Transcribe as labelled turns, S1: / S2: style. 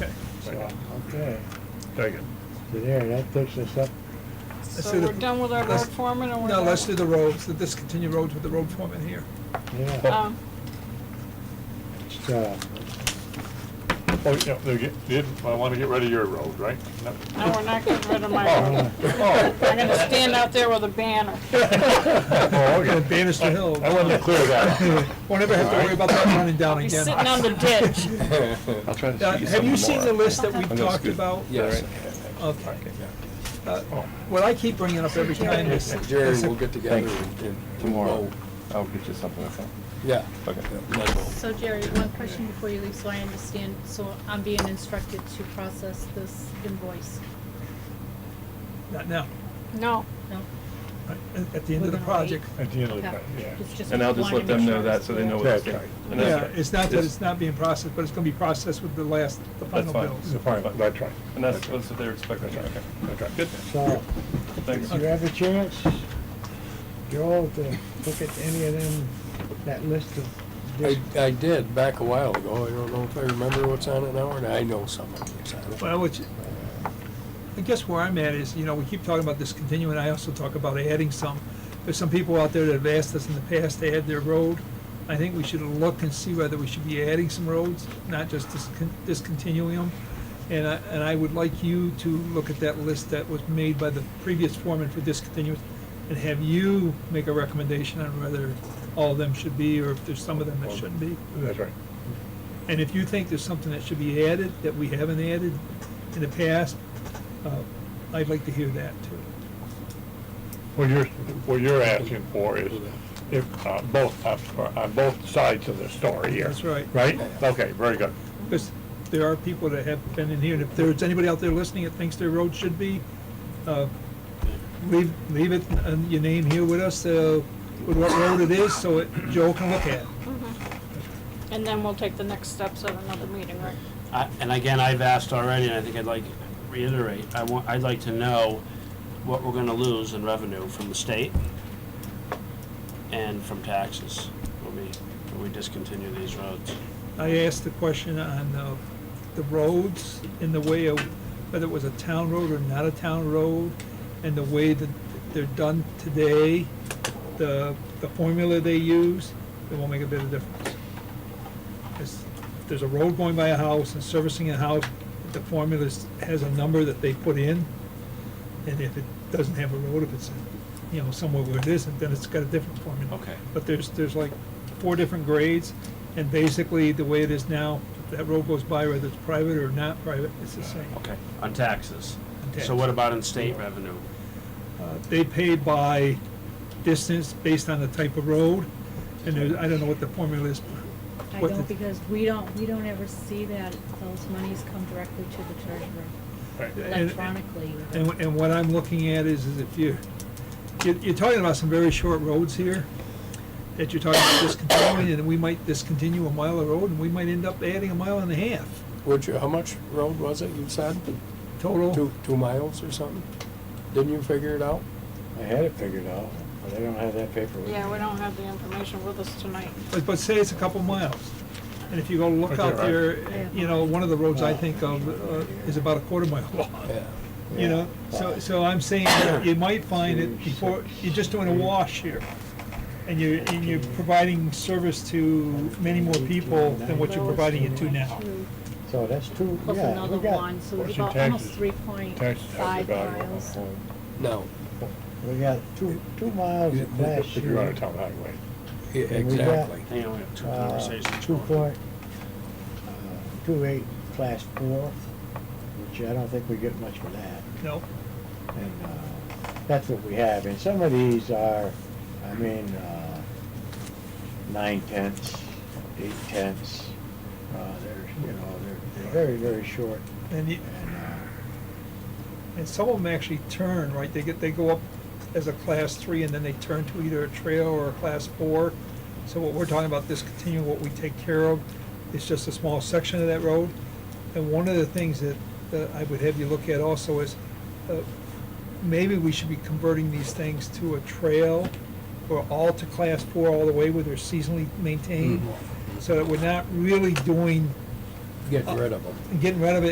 S1: uh,
S2: so, okay.
S1: Very good.
S2: So there, that takes us up,
S3: So we're done with our road foreman or we're?
S4: Now,
S3: done?
S4: let's do the roads, the discontinued roads with the road foreman here.
S2: yeah, uh,
S3: Um,
S2: so,
S1: Oh, yeah, they get- they didn't, I want to get rid of your road, right? No.
S3: No, we're not getting rid of my
S1: Oh,
S3: road.
S1: oh.
S3: I'm gonna stand out there with a banner.
S1: Oh, okay.
S4: Bannister Hill.
S1: I wanted to clear that up.
S4: Won't ever have to worry about that running down
S3: Be
S4: again.
S3: sitting on the ditch.
S5: I'll try to
S4: Uh,
S5: shoot you
S4: Have you
S5: some
S4: seen
S5: more.
S4: the list that we
S5: I'm gonna
S4: talked
S5: scoot-
S4: about?
S5: Yeah, right.
S4: Okay. Uh, What I keep bringing up every time is,
S6: Jerry, we'll get together
S5: Thanks.
S6: and- and.
S5: Tomorrow, I'll get you something like that.
S6: Yeah.
S5: Okay.
S7: So Jerry, one question before you leave, so I understand, so I'm being instructed to process this invoice,
S4: not now,
S3: No,
S7: no?
S4: right, at at the end of the project.
S1: At the end of the,
S7: Okay.
S1: yeah.
S7: It's just
S5: And I'll just
S7: wanted
S5: let
S7: to
S5: them
S7: make
S5: know
S7: sure
S5: that, so they know
S7: it's-
S5: what it's
S1: Yeah.
S5: doing. And that's
S4: Yeah,
S5: good.
S4: it's not that it's not being processed, but it's gonna be processed with the last, the
S5: That's
S4: final
S5: fine.
S4: bills.
S1: So fine, That's right.
S5: And that's, that's what they're expecting, okay.
S1: Okay.
S5: Good,
S2: so,
S5: thanks.
S2: you have a chance, Joel, to look at any of them, that list of,
S6: I,
S2: dis-
S6: I did back a while ago. I don't know if I remember what's on it now, or not. I know some of it's on it.
S4: Well, which, I guess where I'm at is, you know, we keep talking about discontinuing, I also talk about adding some. There's some people out there that have asked us in the past to add their road. I think we should look and see whether we should be adding some roads, not just discon- discontinuing them. And I, and I would like you to look at that list that was made by the previous foreman for discontinuance and have you make a recommendation on whether all of them should be, or if there's some of them that shouldn't be.
S1: That's right.
S4: And if you think there's something that should be added, that we haven't added in the past, uh, I'd like to hear that too.
S1: What you're, what you're asking for is if, uh, both, uh, on both sides of the story here.
S4: That's right.
S1: Right? Okay, very good.
S4: Because there are people that have been in here, and if there's anybody out there listening that thinks their road should be, uh, leave, leave it, and your name here with us, uh, with what road it is, so it- Joel can look at it.
S3: Mm-hmm. and then we'll take the next steps at another meeting, right?
S8: I- And again, I've asked already, and I think I'd like to reiterate, I want, I'd like to know what we're gonna lose in revenue from the state and from taxes when we, when we discontinue these roads.
S4: I asked the question on uh, the roads in the way of whether it was a town road or not a town road, and the way that they're done today, the, the formula they use, it won't make a bit of difference. It's- If there's a road going by a house and servicing a house, the formula is- has a number that they put in, and if it doesn't have a road, if it's, you know, somewhere where it isn't, then it's got a different formula.
S8: Okay.
S4: But there's, there's like four different grades, and basically, the way it is now, that road goes by whether it's private or not private, it's the same.
S8: Okay. On taxes.
S4: On
S8: So what about in state revenue?
S4: Uh, They pay by distance based on the type of road, and there, I don't know what the formula is.
S7: I
S4: what the-
S7: don't, because we don't, we don't ever see that, those monies come directly to the treasurer
S1: Right.
S4: And-
S7: electronically.
S4: And, wh- and what I'm looking at is, is if you, you're, you're talking about some very short roads here, that you're talking about discontinuing, and we might discontinue a mile of road, and we might end up adding a mile and a half
S6: Would you, how much road was it you said?
S4: total.
S6: Two, two miles or something? Didn't you figure it out?
S2: I had it figured out, but I don't have that paper with me.
S3: Yeah, we don't have the information with us tonight.
S4: But, but say it's a couple miles, and if you go look
S1: Right
S4: out
S1: there,
S4: there, you know, one of the roads I think of uh, is about a quarter mile long,
S6: Yeah.
S4: you know? So, so I'm saying that you might find it before, you're just doing a wash here, and you're, and you're providing service to many more people than what you're providing it to now.
S2: So that's two,
S7: Plus
S2: yeah,
S7: another
S2: we got,
S7: one, so
S1: what's
S7: it's
S1: your
S7: about almost
S1: taxes?
S7: three point
S1: Taxes have
S7: five
S1: the value of
S7: miles.
S1: a home.
S6: No.
S2: we got two, two miles of last
S1: If you're on a
S2: year.
S1: town highway.
S6: e-
S2: And we got-
S6: Exactly.
S8: Hang on, we have two
S2: Uh,
S8: conversations.
S2: two
S8: going.
S2: point, uh, two eight, class four, which I don't think we get much for that.
S4: No,
S2: And uh, that's what we have. And some of these are, I mean, uh, nine tenths, eight tenths. Uh, They're, you know, they're they're very, very short.
S4: and you,
S2: And uh,
S4: and some of them actually turn, right, they get, they go up as a class three, and then they turn to either a trail or a class four. So what we're talking about, discontinuing what we take care of, is just a small section of that road. And one of the things that, that I would have you look at also is, uh, maybe we should be converting these things to a trail, or all to class four all the way, where they're seasonally maintained, so that we're not really doing, uh,
S6: Get Mm-hmm. rid of them.
S4: getting rid of it